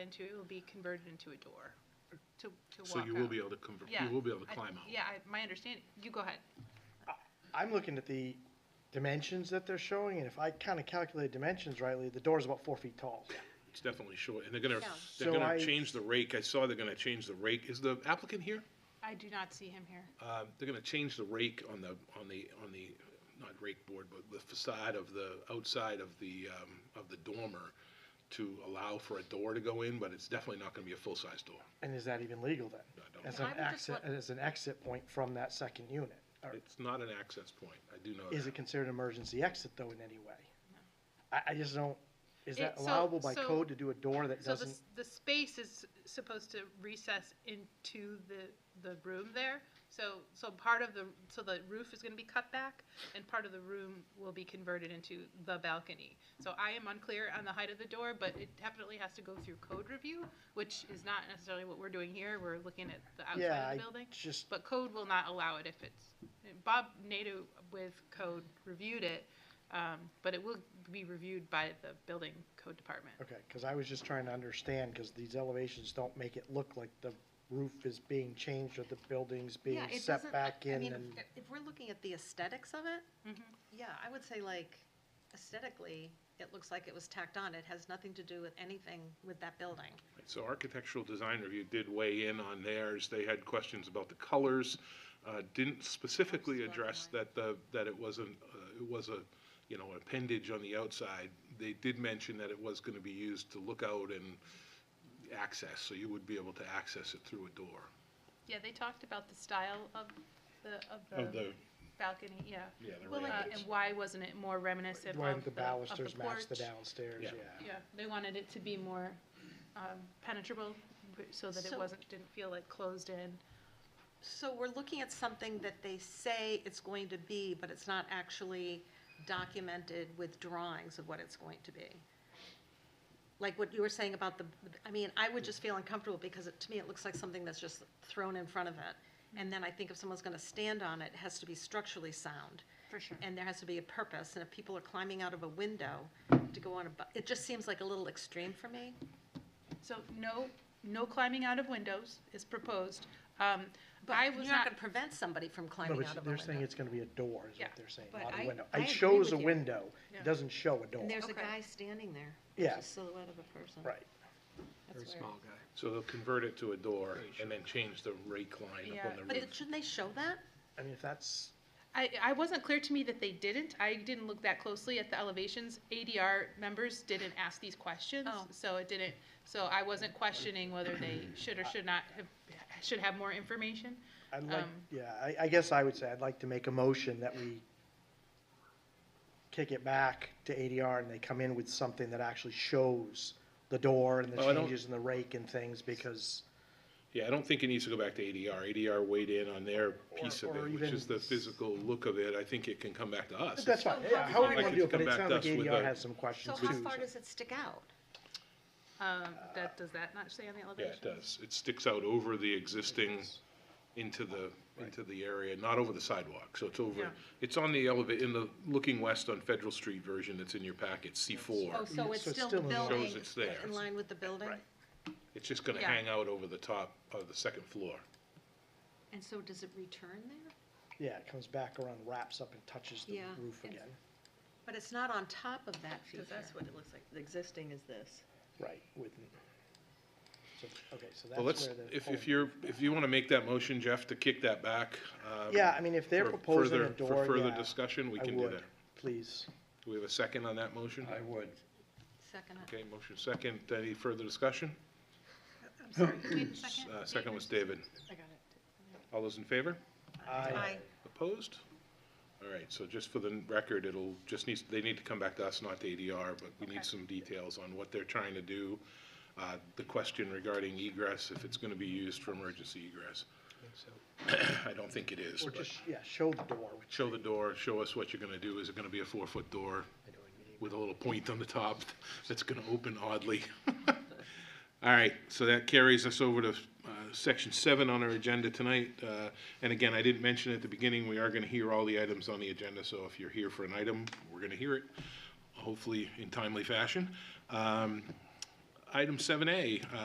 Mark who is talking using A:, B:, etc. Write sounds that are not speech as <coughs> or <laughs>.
A: into, it will be converted into a door to, to walk
B: So you will
A: out.
B: be able to convert,
A: Yeah,
B: you will be able to
A: I-
B: climb out.
A: Yeah, I- my understanding, you go ahead.
C: I'm looking at the dimensions that they're showing, and if I kind of calculate dimensions rightly, the door's about four feet tall.
B: It's definitely short, and they're gonna, they're
C: So I-
B: gonna change the rake. I saw they're gonna change the rake. Is the applicant here?
A: I do not see him here.
B: Um, they're gonna change the rake on the, on the, on the, not rake board, but the facade of the, outside of the, um, of the dormer to allow for a door to go in, but it's definitely not gonna be a full-size door.
C: And is that even legal then?
B: I don't-
C: As an
A: I would just
C: exit, as an exit point from that second unit? Or
B: It's not an access point. I do know
C: Is
B: that.
C: it considered an emergency exit though in any way? I, I just don't, is that
A: It- so-
C: allowable by
A: so-
C: code to do a door that
A: So the,
C: doesn't?
A: s- the space is supposed to recess into the, the room there. So, so part of the, so the roof is gonna be cut back and part of the room will be converted into the balcony. So I am unclear on the height of the door, but it definitely has to go through code review, which is not necessarily what we're doing here. We're looking at the
C: Yeah,
A: outside
C: I
A: of the building.
C: just,
A: But code will not allow it if it's, Bob Nato with code reviewed it, um, but it will be reviewed by the building code department.
C: okay, because I was just trying to understand, because these elevations don't make it look like the roof is being changed or the building's being
D: Yeah, it
C: set
D: doesn't- I-
C: back
D: I
C: in
D: mean,
C: and,
D: if- If we're looking at the aesthetics of it,
A: Mhm.
D: yeah, I would say like aesthetically, it looks like it was tacked on. It has nothing to do with anything with that building.
B: So architectural design review did weigh in on theirs. They had questions about the colors. uh, Didn't specifically address that the, that it wasn't, uh, it was a, you know, appendage on the outside. They did mention that it was going to be used to look out and access, so you would be able to access it through a door.
A: Yeah, they talked about the style of the, of
B: Of
A: the
B: Oh, the-
A: balcony, yeah.
B: Yeah, the
A: Uh,
B: railings.
A: And why wasn't it more reminiscent
C: why
A: of
C: the
A: the, of the
C: balusters match the
A: porch?
C: downstairs,
B: Yeah.
C: yeah.
A: Yeah, they wanted it to be more um, penetrable, so that it
D: So-
A: wasn't, didn't feel like closed in.
D: So we're looking at something that they say it's going to be, but it's not actually documented with drawings of what it's going to be. Like what you were saying about the, I mean, I would just feel uncomfortable because it, to me, it looks like something that's just thrown in front of it. And then I think if someone's gonna stand on it, it has to be structurally sound.
A: For sure.
D: And there has to be a purpose, and if people are climbing out of a window to go on a, bu- it just seems like a little extreme for me.
A: So no, no climbing out of windows is proposed. Um, I was
D: You're not
A: not,
D: gonna prevent somebody from
C: No,
D: climbing
C: but
D: out of a
C: they're saying
D: window.
C: it's gonna be a door, is
A: Yeah,
C: what they're saying,
D: but
C: not
D: I-
C: a window.
D: I
C: It
D: agree
C: shows
D: with
C: a
D: you.
C: window,
A: Yeah.
C: it doesn't show a door,
D: And there's a
A: Okay.
D: guy standing there.
C: Yeah.
D: There's a silhouette of a person.
C: right.
D: That's weird.
B: So they'll convert it to a door and then change the rake line up
A: Yeah.
B: on the
D: But
B: roof.
D: it- shouldn't they show that?
C: I mean, if that's,
A: I, I wasn't clear to me that they didn't. I didn't look that closely at the elevations. ADR members didn't ask these questions,
D: Oh.
A: so it didn't, so I wasn't questioning whether they should or should not have, should have more information.
C: I'd like,
A: Um,
C: yeah, I, I guess I would say I'd like to make a motion that we kick it back to ADR and they come in with something that actually shows the door and the
B: Well, Oh, I don't-
C: changes in the rake and things because,
B: Yeah, I don't think it needs to go back to ADR. ADR weighed in on their piece of
C: or
B: it, which
C: even-
B: is the physical look of it. I think it can come back to us.
C: that's fine, yeah, however
B: Like
C: you wanna
B: it's
C: do it, but
B: come
C: it
B: back
C: sounds
B: to
C: like
B: us with
C: ADR
B: a-
C: has some questions
D: So
C: too.
D: how
C: so-
D: far does it stick out?
A: Um, that, does that not say on the
B: Yeah,
A: elevation?
B: it does. It sticks out over the existing, into the, into the area, not over the sidewalk. So it's over,
A: Yeah.
B: it's on the elevate, in the looking west on Federal Street version that's in your packet,
D: Oh,
B: C4.
D: so it's
C: So it's
D: still the
C: still in line.
D: building?
B: Shows it's there.
D: In line with the building?
B: It's just going to
A: Yeah.
B: hang out over the top of the second floor.
D: And so does it return there?
C: Yeah, it comes back around, wraps up and touches the
D: Yeah,
C: roof
D: it's-
C: again,
D: But it's not on top of that feature.
E: Because that's what it looks like. The existing is this.
C: right, with, so, okay, so that's
B: Well,
C: where
B: let's,
C: the.
B: if,
C: whole-
B: if you're, if you want to make that motion, Jeff, to kick that back. um,
C: Yeah, I mean, if they're
B: for
C: proposing a
B: further- For
C: door,
B: further
C: yeah,
B: discussion, we
C: I
B: can do
C: would,
B: that.
C: Please.
B: Do we have a second on that motion?
F: I would.
D: Second,
B: Okay, motion second. Any further discussion?
D: I'm sorry, wait a second.
B: Uh, Second was David.
D: I got it.
B: All those in favor?
C: I,
D: Aye.
B: Opposed? All right, so just for the record, it'll, just needs, they need to come back to us, not to ADR, but we need some details on what they're trying to do. Uh, The question regarding egress, if it's going to be used for emergency egress. <coughs> I don't think it is,
C: or
B: but
C: just, yeah, show the door, which
B: show the door, show us what you're going to do. Is it going to be a four-foot door with a little point on the top that's going to open oddly? <laughs> All right, so that carries us over to uh, section seven on our agenda tonight. Uh, And again, I didn't mention at the beginning, we are going to hear all the items on the agenda, so if you're here for an item, we're going to hear it, hopefully in timely fashion. Um, item seven A, uh,